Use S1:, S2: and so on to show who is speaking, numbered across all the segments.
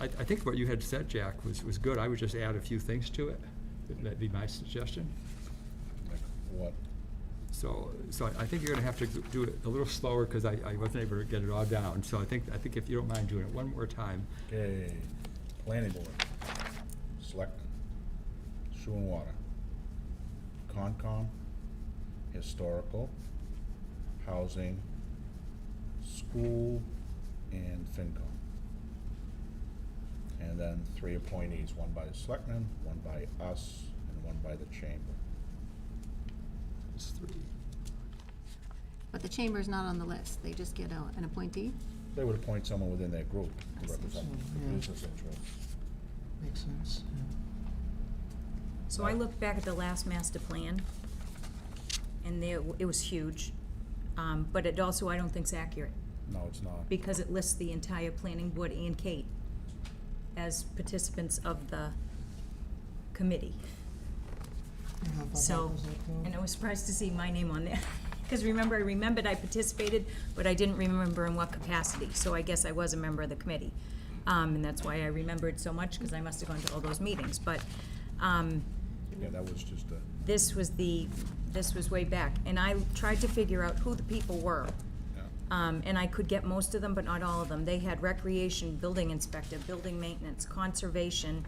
S1: I, I think what you had said, Jack, was, was good. I would just add a few things to it. That'd be my suggestion.
S2: Like What?
S1: So, so I- I think you're gonna have to do it a little slower, because I, I wasn't able to get it all down. So I think, I think if you don't mind doing it one more time,
S2: Okay, planning board, selectmen, sewer and water, Concom, historical, housing, school, and FinCom. And then three appointees, one by the selectmen, one by us, and one by the chamber.
S1: it's three.
S3: But the chamber's not on the list, they just get a- an appointee?
S2: They would appoint someone within their group
S3: I
S2: to
S3: see.
S2: represent the
S4: Yeah.
S2: business interests.
S4: Makes sense, yeah.
S5: So I looked back at the last master plan, and there, it was huge, um, but it also, I don't think's accurate,
S2: No, it's not.
S5: because it lists the entire planning board and Kate as participants of the committee.
S4: I thought that
S5: So,
S4: was it, though.
S5: and I was surprised to see my name on there, because remember, I remembered I participated, but I didn't remember in what capacity, so I guess I was a member of the committee. Um, and that's why I remembered so much, because I must have gone to all those meetings, but, um,
S2: Yeah, that was just a.
S5: this was the, this was way back, and I tried to figure out who the people were.
S2: Yeah.
S5: Um, and I could get most of them, but not all of them. They had recreation, building inspector, building maintenance, conservation.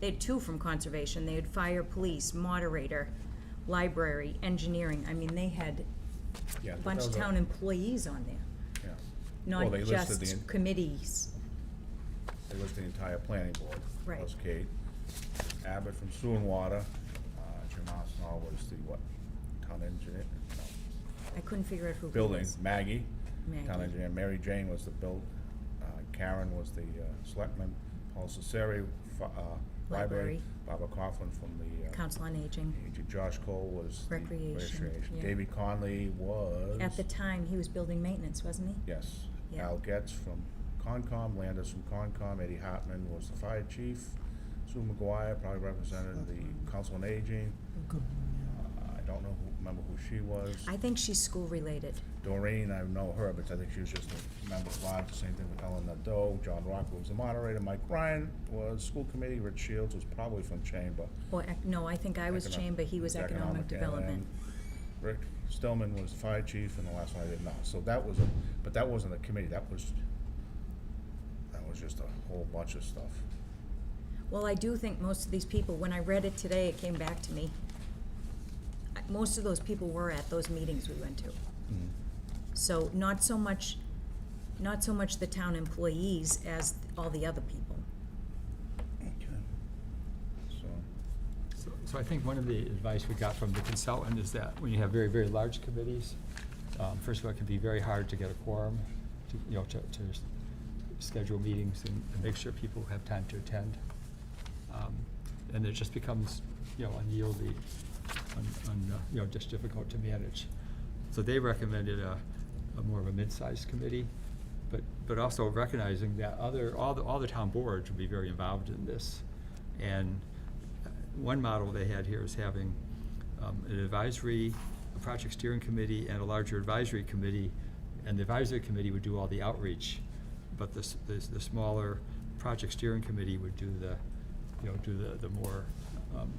S5: They had two from conservation. They had fire, police, moderator, library, engineering. I mean, they had
S2: Yeah,
S5: a
S2: but
S5: bunch
S2: that
S5: of
S2: was a-
S5: town employees on there,
S2: Yeah. Well,
S5: not
S2: they listed the,
S5: just
S2: en-
S5: committees.
S2: they listed the entire planning board.
S5: Right.
S2: Plus Kate, Abbott from Sewer and Water, uh, Jim Osnall was the what, town engineer? No,
S5: I couldn't figure out who. it
S2: Building,
S5: was.
S2: Maggie, town
S5: Maggie.
S2: engineer, Mary Jane was the build, uh, Karen was the uh, selectman, Paul Cesare, fi- uh, library,
S5: Library.
S2: Barbara Coughlin from the. uh,
S5: Council on Aging.
S2: agent. Josh Cole was. the
S5: Recreation, yeah.
S2: David Conley was.
S5: At the time, he was building maintenance, wasn't he?
S2: Yes.
S5: Yeah.
S2: Al Getz from Concom, Landis from Concom, Eddie Hartman was the fire chief, Sue McGuire probably represented the council on aging.
S4: Good
S2: Uh,
S4: one,
S2: I don't know who, remember who she was.
S5: I think she's school-related.
S2: Doreen, I know her, but I think she was just a member of lodge, same thing with Ellen Nadeau, John Rock was the moderator, Mike Ryan was school committee, Rich Shields was probably from chamber.
S5: Or, ec- no, I think I was
S2: Economic-
S5: chamber, he was economic
S2: and uh, then
S5: development.
S2: Rick Stillman was the fire chief, and the last one I didn't know, so that was a, but that wasn't a committee, that was, that was just a whole bunch of stuff.
S5: Well, I do think most of these people, when I read it today, it came back to me. I- Most of those people were at those meetings we went to.
S2: Mm-hmm.
S5: So not so much, not so much the town employees as all the other people.
S2: So,
S1: So- So I think one of the advice we got from the consultant is that when you have very, very large committees, um, first of all, it can be very hard to get a quorum, to, you know, to, to s- schedule meetings and and make sure people have time to attend. Um, And it just becomes, you know, unwieldy, un, un- uh, you know, just difficult to manage. So they recommended a, a more of a mid-sized committee, but, but also recognizing that other, all the, all the town boards would be very involved in this. And uh, one model they had here is having um, an advisory, a project steering committee and a larger advisory committee. And the advisory committee would do all the outreach, but the, s- the, s- the smaller project steering committee would do the, you know, do the, the more um,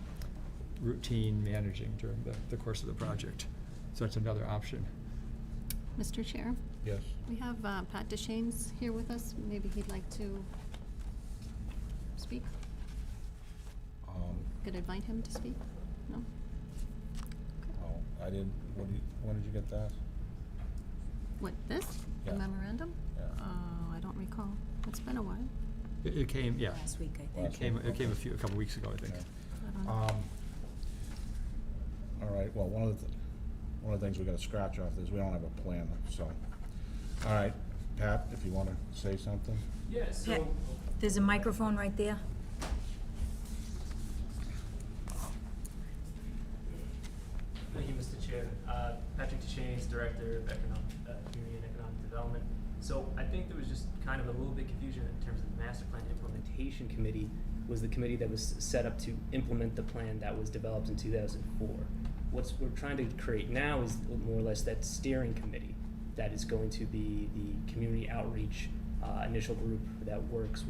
S1: routine managing during the, the course of the project. So that's another option.
S3: Mr. Chair,
S2: yes,
S3: we have uh, Pat Deschaines here with us, maybe he'd like to speak?
S2: um,
S3: Could invite him to speak? No?
S2: oh, I didn't, what do you, when did you get that?
S3: What, this? The
S2: Yeah.
S3: memorandum?
S2: Yeah.
S3: Oh, I don't recall, it's been a while.
S1: It, it came, yeah,
S5: Last week, I
S2: Last
S5: think.
S1: it came, it came a
S2: Okay.
S1: few, a couple weeks ago, I think.
S2: Yeah.
S3: I don't know.
S2: Um, all right, well, one of the, th- one of the things we're gonna scratch off is we don't have a plan, so. All right, Pat, if you wanna say something?
S6: Yeah,
S5: Yeah.
S6: so,
S5: There's a microphone right there.
S6: thank you, Mr. Chair. Uh, Patrick Duchesne, Director of Economic, uh, Community and Economic Development. So I think there was just kind of a little bit confusion in terms of the Master Plan Implementation Committee was the committee that was set up to implement the plan that was developed in two thousand four. What's, we're trying to create now is more or less that steering committee that is going to be the community outreach, uh, initial group that works